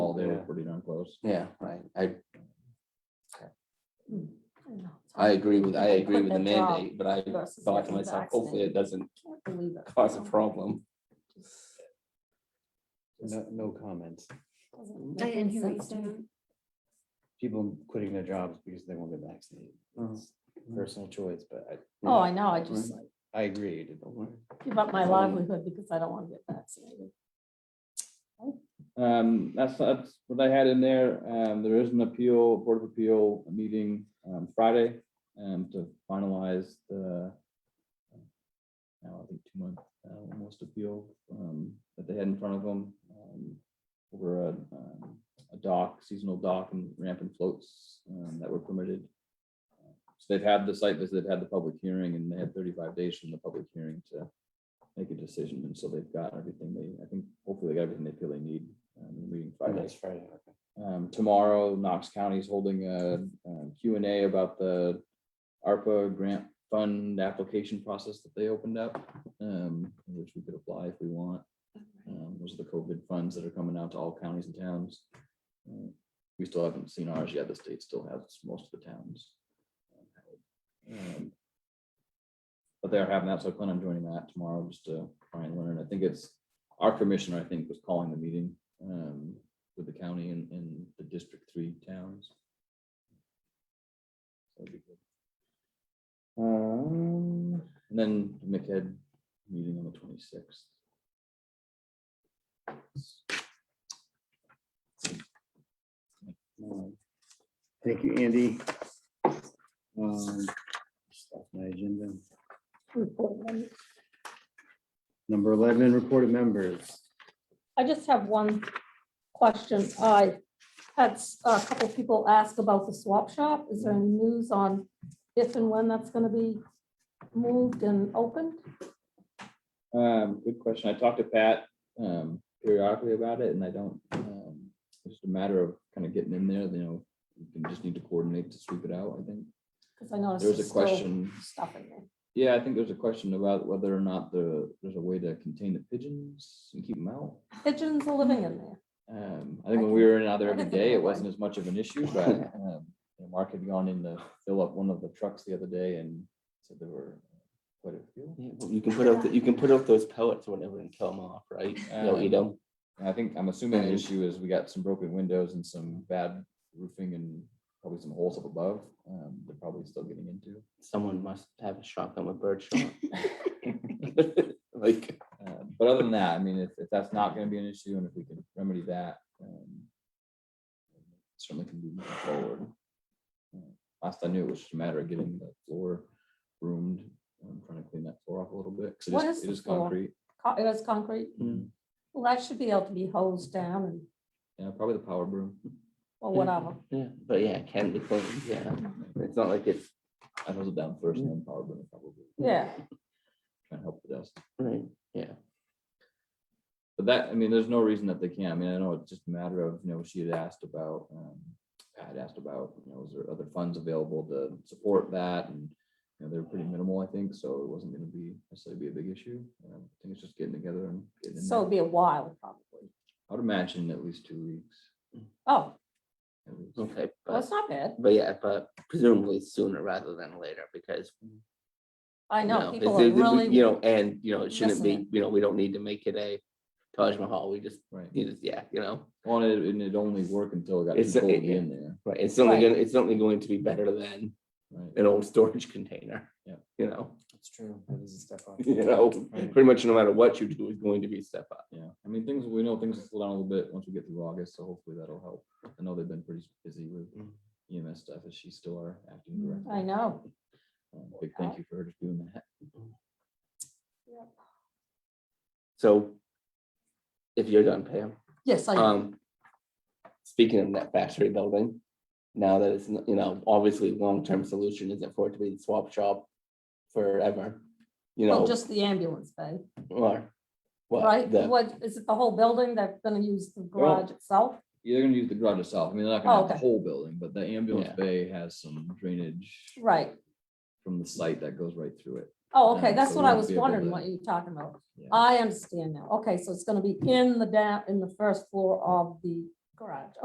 those. Yeah, right. I, I Mm. I agree with, I agree with the Equipment job mandate, but I versus thought to an myself, hopefully it doesn't accident. can't believe it. cause a problem. No, no mm. comments. Doesn't I make didn't any hear what you sense to me. said. People quitting their jobs because they won't get vaccinated. It's Personal choice, but Uh-huh. Mm-hmm. Oh, I know, I just like mm-hmm. I, I agree. it didn't- give up my Um, livelihood because I don't want to get vaccinated. Um, that's, that's what I had in there. Um, there is an appeal, Board of Appeal meeting, um, Friday, um, to finalize the uh, now, I think two month, uh, almost appeal, um, that they had in front of them, um, over a, um, a dock, seasonal dock and ramp and floats, um, that were permitted. So they've had the site visit, they've had the public hearing, and they had thirty-five days from the public hearing to make a decision, and so they've got everything they, I think, hopefully they got everything they feel they need, um, in the meeting Oh, Friday. that's Friday, okay. Um, tomorrow, Knox County is holding a, um, Q and A about the ARPA grant fund application process that they opened up, um, in which we could apply if we want. Um, those are the COVID funds that are coming out to all counties and towns. Uh, We still haven't seen ours yet. The state still has most of the towns. Um, But they are having that, so I plan on joining that tomorrow just to try and learn. I think it's, our commissioner, I think, was calling the meeting, um, with the county and, and the district three towns. That'd be good. Um, and then McEd meeting on the twenty-sixth. Mm-hmm. Um, Thank you, Andy. Um, just off My agenda. Report one. Number eleven, reported members. I just have one question. I had s- a couple people ask about the swap shop. Is there any news on if and when that's gonna be moved and opened? Um, good question. I talked to Pat, um, periodically about it and I don't, um, it's just a matter of kind of getting in there, you know, we just need to coordinate to sweep it out, I think. Because I noticed. There was a there's still question Stuff in there. Yeah, I think there's a question about whether or not the, there's a way to contain the pigeons and keep them out. Pigeons are living in there. Um, I think I when we were in out there I every can think day, of it wasn't as much of an issue, but, um, you know, Mark had gone in to fill up one of the trucks the other day and said there were quite a few. Yeah, well, You can put out, the- you can put out those pellets or whatever and kill them off, right? They'll eat them. And I think, I'm assuming the And- issue is we got some broken windows and some bad roofing and probably some holes up above, um, they're probably still getting into. Someone must have a shotgun with bird shot. Like, Uh, But other than that, I mean, if, if that's not gonna be an issue and if we can remedy that, um, certainly can be moving forward. Uh, Last I knew, it was just a matter of getting the floor roomed, I'm trying to clean that floor off a little bit, What because is it the is floor? concrete. Co- It was concrete. Mm. Well, that should be able to be hosed down and, Yeah, probably the power broom. or whatever. yeah, but yeah, it can be cleaned, yeah. It's not like it's, I hose it down first and then power broom probably, Yeah, trying to help the dust. right, yeah. But that, I mean, there's no reason that they can't. I mean, I know it's just a matter of, you know, she had asked about, um, I had asked about, you know, is there other funds available to support that? And, you know, they were pretty minimal, I think, so it wasn't gonna be necessarily be a big issue. Um, I think it's just getting together and getting in so there. it'd be a while probably. I would imagine at least two weeks. Oh, at least. Okay, well, it's but, not bad. but yeah, but presumably sooner rather than later, because. I you know it- people it- are it- we- really. You know, and, you know, it shouldn't missing be, you know, we don't need to make it a Taj Mahal, we just, Right. you just, yeah, you know. Well, and it- and it'd only work until it got It's- people it- in there, Right, it's only Right. gonna, it's only going to be better than right? an old storage container. Yeah. You know, That's true. That is a step on. you know, Right. pretty much no matter what you do is going to be a step up. Yeah, I mean, things, we know things will slow down a little bit once we get through August, so hopefully that'll help. I know they've been pretty busy with Mm. EMS stuff, is she still our acting director? Mm, I know. Oh, Um, Big thank you for her just doing that. So if you're done, Pam, Yes, I. um, speaking of that factory building, now that it's, n- you know, obviously long-term solution isn't for it to be the swap shop forever, you Well, know, just the ambulance bay, or right? what, the, What, is it the whole building that's gonna use the garage itself? Yeah, they're gonna use the garage itself. I mean, they're not gonna Oh, have the okay. whole building, but the ambulance Yeah. bay has some drainage Right. from the site that goes right through it. Oh, Yeah, okay, that's so what I we'll was be able wondering, to- what you're talking about. Yeah. I understand now. Okay, so it's gonna be in the down, in the first floor of the garage.